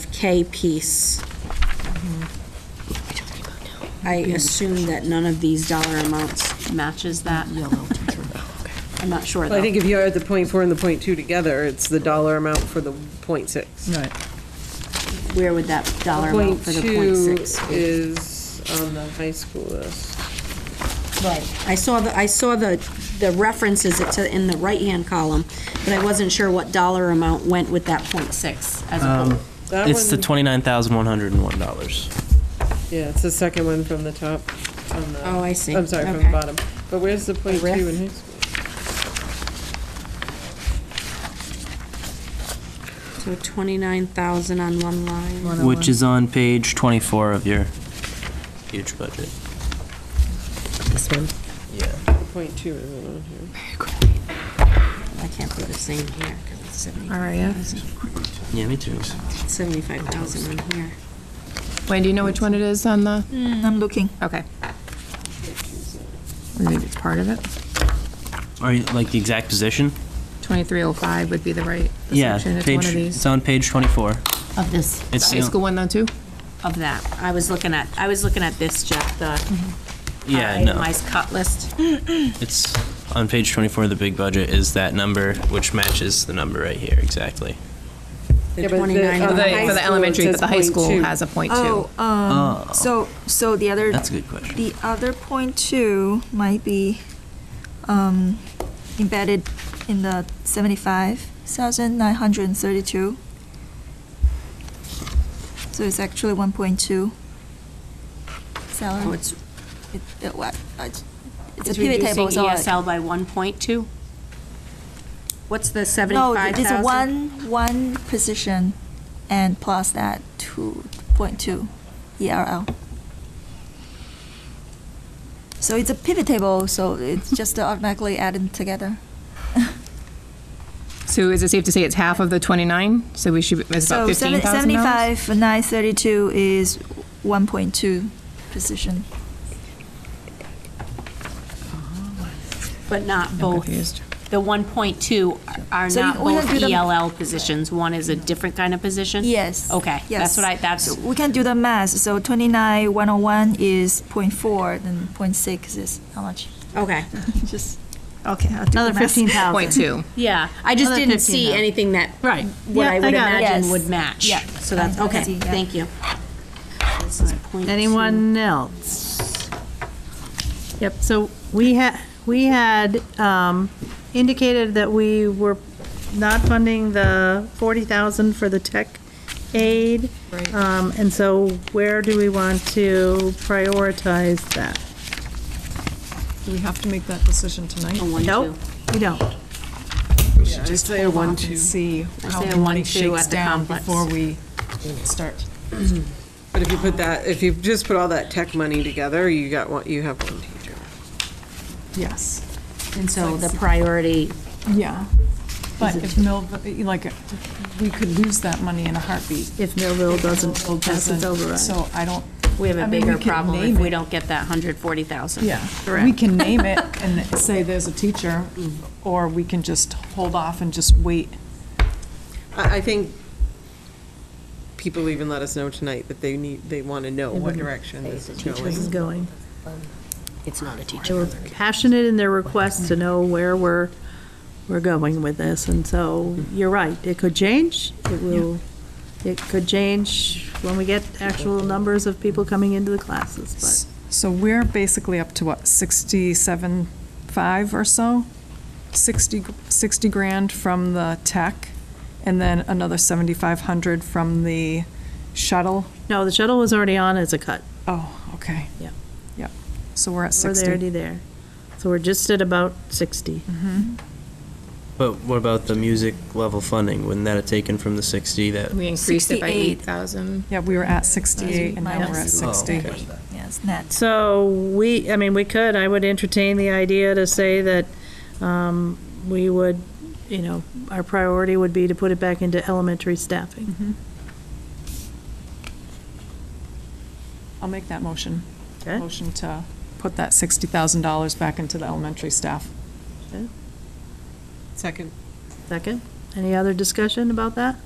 FK piece. I assume that none of these dollar amounts matches that. I'm not sure, Well, I though. think if you add the point four and the point two together, it's the dollar amount for the point six. Right. Where would that dollar amount for the point six Point two be? is on the high school list. I saw the, I saw the, the references it to, in the right-hand column, but I wasn't sure what dollar amount went with that point six as a whole. That It's the one- twenty-nine thousand one hundred and one dollars. Yeah, it's the second one from the top, on the. Oh, I see. I'm sorry, from Okay. the bottom. But where's the point two riff? in high school? So twenty-nine thousand on one line. oh Which is on page twenty-four of your huge budget. This one? Yeah. Point two isn't on here. I can't put the same here, because it's seventy, RAF. Yeah, me too. seventy-five thousand on here. Wayne, do you know which one it is on the, Mm, I'm looking. okay. Or Maybe it's part of it. Are you, like, the exact position? 2305 would be the right, the Yeah, section. It's one page, of it's these. on page twenty-four. Of this. The It's High the- school one though, too? Of that. I was looking at, I was looking at this, Jeff, the uh, Mm-hmm. Yeah, no, itemized cut list. it's on page twenty-four, the big budget is that number, which matches the number right here, exactly. Yeah, but Oh, the- 29 on For the For high the school, it elementary, says but the high point school two. has a point two. Oh, um, Oh. so, so the other. That's a good question. The other point two might be, um, embedded in the seventy-five thousand nine hundred and thirty-two. So it's actually one point two. Oh, Salary. it's, It- it wa- I- It's a it's pivot reducing table, so. I- ESL by one point two? What's the No, seventy-five it's thousand? one, one position and plus that two point two E ERL. So it's a pivot table, so it's just automatically added together. So is it safe to say it's half of the 29? So we should, it's about So seven- 15,000 seventy-five, nine thirty-two is one point two position. But not I'm both. confused. The one point two are So you- not we don't both do them- ELL positions. One is a different kind of position? Yes. Okay, that's yes. what I, that's, We can do the math, so twenty-nine, one oh one is point four, then point six is how much? okay. Just, okay, I'll do the math. Point two. Yeah, I just Another didn't see 15,000. anything that, Right. what Yeah, I I would got it. imagine Yes. would match. Yeah. So that's, I okay, see, yeah. thank you. This is point two. Anyone else? Yep, so we had, we had um, indicated that we were not funding the 40,000 for the tech aid. Right. And so where do we want to prioritize that? Do we have to make that decision tonight? A one, Nope, two. we don't. We should just hold off and see how say a the money one-two at shakes the down complex. before we start. But if you put that, if you just put all that tech money together, you got one, you have one teacher. Yes. And so the priority Yeah. But if Millville, like, we could lose that money in a heartbeat. If Millville doesn't Millville pass its doesn't, override. So I don't. We have I a mean, bigger could problem name if we it. don't get that 140,000. Yeah. We can name it and say there's a teacher, or we can just hold off and just wait. I, I think people even let us know tonight that they need, they want to know what direction this is This is going. going. It's not a teacher. They were passionate in their request to know where we're, we're going with this, and so, you're right, it could change, it will, it could change when we get actual numbers of people coming into the classes, So we're basically up to what, 67, 5 or so? 60, gr- 60 grand from the tech, and then another 7,500 from the shuttle. but, no, the shuttle was already on as a cut, Oh, okay. Yeah. Yep. So we're at we're 60. already there. So we're just at about sixty. But what about the music level funding? Wouldn't that have taken from the sixty that? We increased it by 68. 8,000. Yeah, we were at 68, and now we're at Minus. Oh, 60. Yes, net. So we, I mean, we could, I would entertain the idea to say that um, we would, you know, our priority would be to put it back into elementary Mm-hmm. staffing. I'll make that motion. Okay. Motion to put that $60,000 back into the elementary staff. Second. Second, any other discussion about that?